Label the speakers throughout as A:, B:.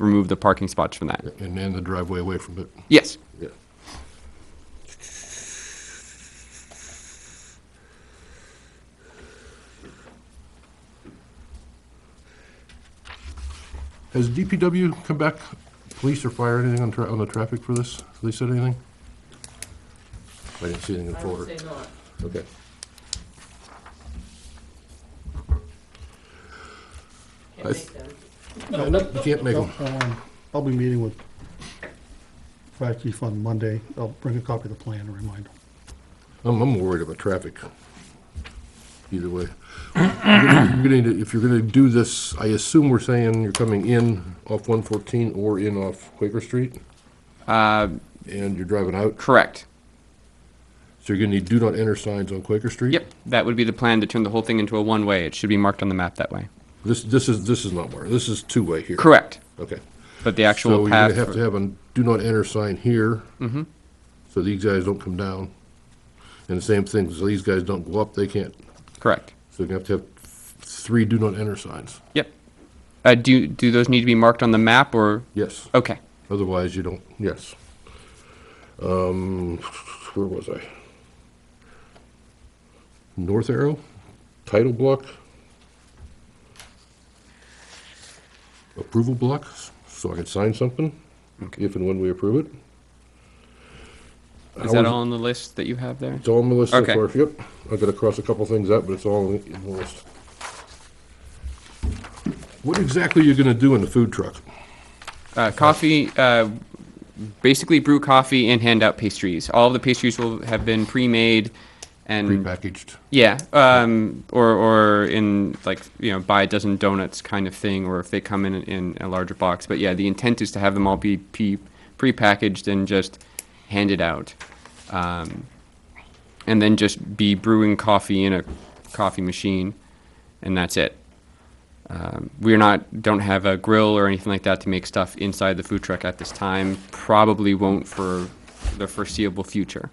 A: remove the parking spots from that.
B: and, and the driveway away from it.
A: Yes.
B: Yeah. Has DPW come back, police or fire, anything on tra, on the traffic for this? Have they said anything? I didn't see anything in the
C: I would
B: folder.
C: say not.
B: Okay.
C: Can't
B: I
C: make
B: th-
C: them.
B: No, no, you can't make them.
D: Um, I'll be meeting with Fire Chief on Monday. I'll bring a copy of the plan and remind him.
B: I'm, I'm worried about traffic. Either way. You're gonna- you're gonna- If you're gonna do this, I assume we're saying you're coming in off one fourteen or in off Quaker Street,
A: Uh,
B: and you're driving out,
A: correct.
B: so you're gonna need do not enter signs on Quaker Street?
A: Yep. That would be the plan to turn the whole thing into a one-way. It should be marked on the map that way.
B: This, this is, this is not where, this is two-way here.
A: Correct.
B: Okay.
A: But the actual
B: So you're gonna
A: path. Mm-hmm.
B: have to have a do not enter sign here. So these guys don't come down. And the same thing, so these guys don't go up, they can't,
A: Correct.
B: so you're gonna have to have three do not enter signs.
A: Yep. Uh, do do those need to be marked on the map or?
B: Yes.
A: Okay.
B: Otherwise, you don't, yes. Um, where was I? North Arrow, title block, approval block, so I can sign something, if and when we approve it.
A: Is that
B: Hours-
A: all on the list that you have there?
B: It's all on the list so
A: Okay.
B: far, yep. I gotta cross a couple things out, but it's all in the list. What exactly are you gonna do in the food truck?
A: Uh, coffee, uh, basically brew coffee and hand out pastries. All of the pastries will have been pre-made and
B: Prepackaged?
A: yeah, um, or or in like you know buy a dozen donuts kind of thing, or if they come in in a larger box. But yeah, the intent is to have them all be pre prepackaged and just handed out, um, and then just be brewing coffee in a coffee machine, and that's it. Um, we're not don't have a grill or anything like that to make stuff inside the food truck at this time. Probably won't for the foreseeable future.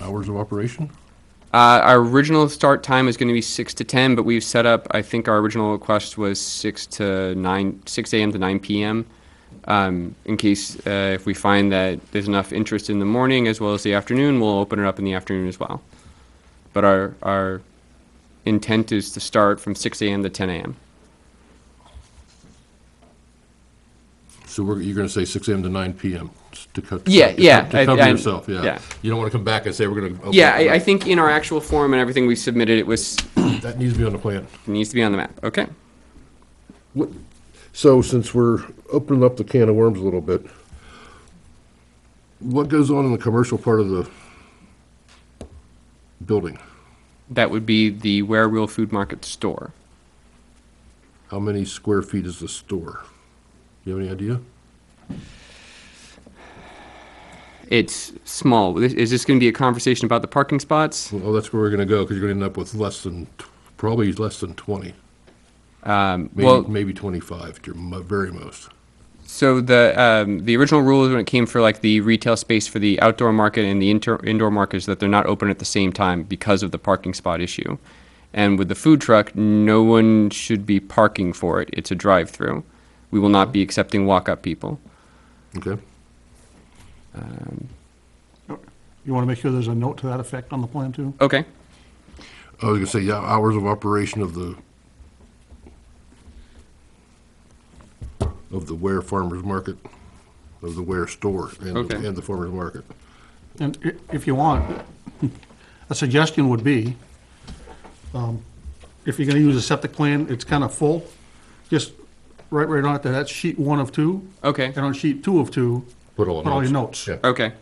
B: Hours of operation?
A: Uh, our original start time is going to be six to ten, but we've set up. I think our original request was six to nine, six a.m. to nine p.m. Um, in case uh, if we find that there's enough interest in the morning as well as the afternoon, we'll open it up in the afternoon as well. But our our intent is to start from six a.m. to ten a.m.
B: So we're, you're gonna say six AM to nine PM to cut. to
A: Yeah,
B: cut-
A: yeah,
B: To
A: I-
B: cover
A: I-
B: yourself, yeah.
A: yeah.
B: You don't wanna come back and say we're gonna. open
A: Yeah,
B: it
A: I, I
B: up.
A: think in our actual form and everything we submitted, it was
B: That needs to be on the plan.
A: needs to be on the map. Okay.
B: What- So since we're opening up the can of worms a little bit, what goes on in the commercial part of the building?
A: That would be the Where Real Food Market store.
B: How many square feet is the store? You have any idea?
A: It's small. This- Is this going to be a conversation about the parking spots?
B: Well, that's where we're gonna go, cause you're gonna end up with less than, t- probably less than twenty,
A: Um,
B: maybe,
A: well,
B: maybe twenty-five at your mo- very most.
A: so the um, the original rule is when it came for like the retail space for the outdoor market and the inter- indoor market is that they're not open at the same time because of the parking spot issue. And with the food truck, no one should be parking for it. It's a drive-through. We will not be accepting walk-up people.
B: Okay?
D: You want to make sure there's a note to that effect on the plan too?
A: Okay.
B: I was gonna say, yeah, hours of operation of the, of the Ware Farmers Market, of the Ware Store and, the-
A: Okay.
B: and the Farmers Market.
D: And i- if you want, a suggestion would be, um, if you're gonna use a septic plan, it's kind of full, just write right on it that that's sheet one of two,
A: Okay.
D: and on sheet two of two,
B: Put all
D: put all your notes.
B: Yeah.
A: Okay.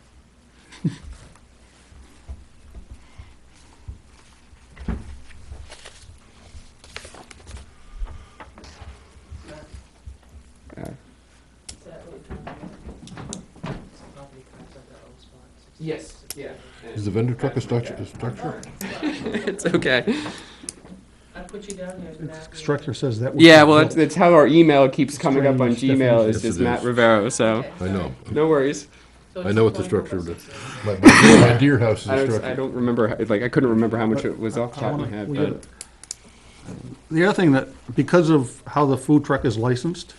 C: Is that what we're trying to do? It's probably kind of that old spot, six-
A: Yes. Yeah.
B: Is the vendor truck a structure, a structure?
A: it's okay.
C: I put you down there as Matt.
D: Its Structure says that. would be
A: Yeah. Well, that's,
D: built.
A: that's how our email keeps coming up on
D: strange
A: Gmail. Is
B: definition.
A: just Matt Rivero. So.
C: Okay,
B: I know.
A: No worries.
C: so
B: I know what
C: it's
B: the structure of
C: going
B: the,
C: over six
B: my, my my deer house is
A: I
B: a
A: don't, I
B: structure.
A: don't remember, how- like, I couldn't remember how much it was off the top of my
D: I wanna-
A: head,
D: we
A: but
D: The other thing that, because of how the food truck is licensed,